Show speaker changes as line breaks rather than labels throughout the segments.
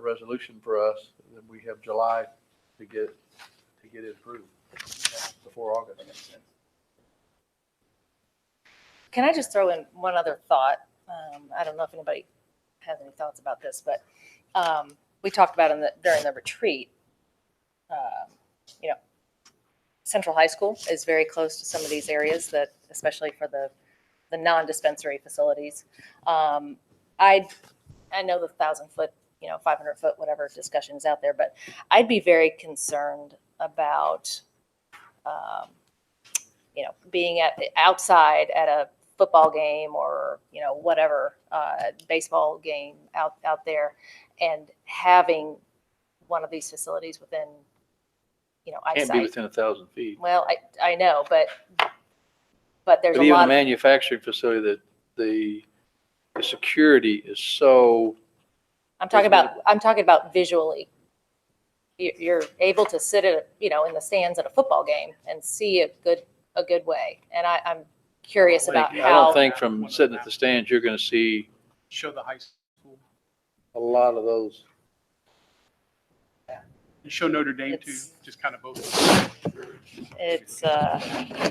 resolution for us, and then we have July to get, to get it approved before August.
Can I just throw in one other thought? Um, I don't know if anybody has any thoughts about this, but, um, we talked about in the, during the retreat, um, you know, Central High School is very close to some of these areas that, especially for the, the non-dispensary facilities. Um, I, I know the thousand foot, you know, 500 foot, whatever discussion is out there, but I'd be very concerned about, um, you know, being at outside at a football game or you know whatever uh, baseball game out out there, and having one of these facilities within you know
Can't be
eyesight.
within a thousand feet.
Well, I I know, but but there's
But even
a
a
lot. Of,
manufacturing facility that the, the security is so,
I'm talking about I'm talking about visually. You- You're able to sit at you know in the stands at a football game and see a good a good way, and I, I'm curious about
I don't
how.
think from sitting at the stands, you're gonna see
show the high school,
a lot of those.
and show Notre Dame too,
It's-
just kind of both.
it's uh,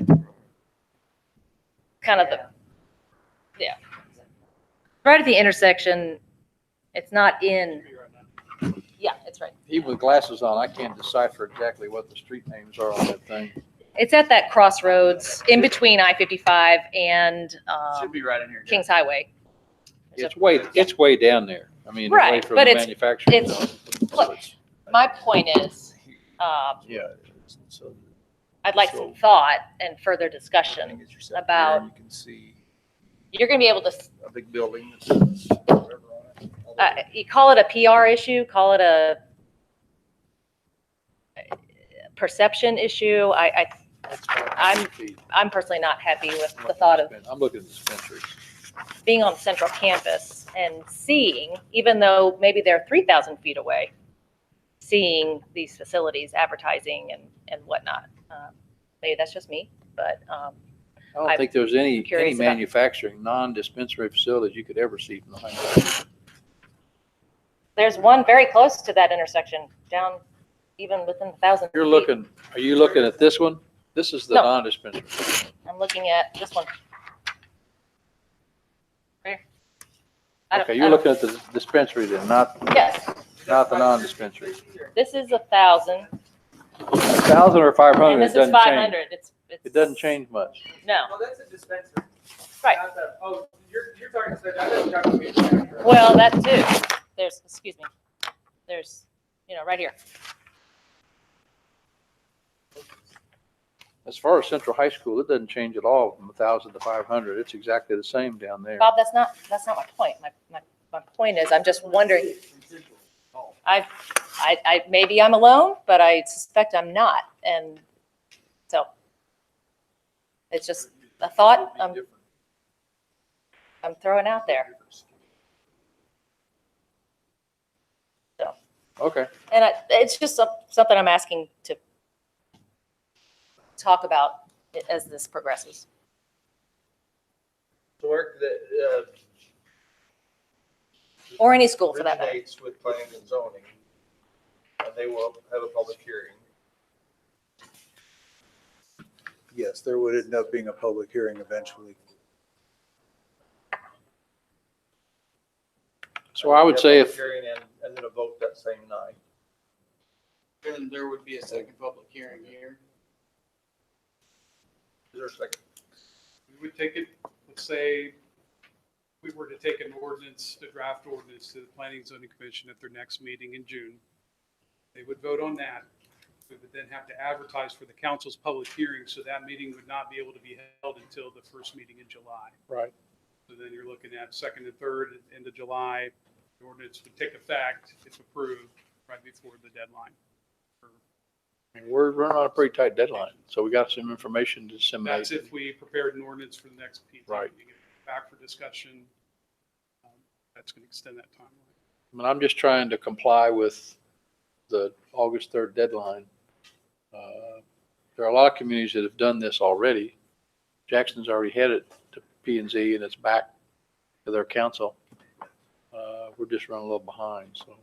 kind of the, yeah. Right at the intersection, it's not in, yeah, it's right.
Even with glasses on, I can't decipher exactly what the street names are on that thing.
It's at that crossroads in between I-55 and
Should
um,
be right in here.
Kings Highway.
It's way, it's way down there. I mean, away
Right,
from
but
the
it's-
manufacturing.
it's-
zone.
look.
So it's-
My point is, um,
Yeah.
I'd like some thought and further discussion. about-
You can see
You're going to be able to
a big building. that says whatever on it.
uh, you call it a PR issue, call it a perception issue. I, I,
That's why
I'm-
feet.
I'm personally not happy with the thought of
I'm looking at dispensaries.
being on central campus and seeing, even though maybe they're three thousand feet away, seeing these facilities advertising and, and whatnot. Um, Maybe that's just me, but, um,
I don't
I'm
think there's any, any
curious about-
manufacturing, non-dispensary facilities you could ever see from the high.
there's one very close to that intersection down even within a thousand.
You're
feet.
looking, are you looking at this one? This is the
No.
non-dispensary.
I'm looking at this one. Right here. I don't-
Okay,
I
you're
don't-
looking at the dispensary then, not,
Yes,
not the non-dispensary.
this is a thousand
A thousand or five
and
hundred, it
this is
doesn't
five
change.
hundred. It's, it's.
It doesn't change much.
No.
Well, that's a dispenser.
Right.
Not the- Oh, you're, you're talking, so I thought you were talking about manufacturer.
Well, that too. There's, excuse me, there's, you know, right here.
As far as Central High School, it doesn't change at all from a thousand to five hundred. It's exactly the same down there.
Bob, that's not, that's not my point. My, my, my point is, I'm just wondering, I, I, I, maybe I'm alone, but I suspect I'm not. And so it's just a thought I'm, I'm throwing out there.
Okay,
And I, it's just some- something I'm asking to talk about as this progresses.
The work that, uh,
Or any school for that matter.
originates with planning and zoning, and they will have a public hearing.
Yes, there would end up being a public hearing eventually.
so I would say
A
if,
public Hearing and, and then a vote that same night.
Then there would be a second public hearing here.
Is there a second?
We would take it, let's say, we were to take an ordinance, a draft ordinance to the Planning and Zoning Commission at their next meeting in June. They would vote on that. We would then have to advertise for the council's public hearing, so that meeting would not be able to be held until the first meeting in July.
Right.
So then you're looking at second and third, end of July, the ordinance would take effect if approved right before the deadline.
I mean, we're running on a pretty tight deadline, so we got some information to disseminate.
That's if we prepared an ordinance for the next PT.
Right.
meeting. Back for discussion. Um, That's going to extend that timeline.
I mean, I'm just trying to comply with the August 3rd deadline. Uh, There are a lot of communities that have done this already. Jackson's already had it to P and Z and it's back to their council. Uh, We're just running a little behind, so.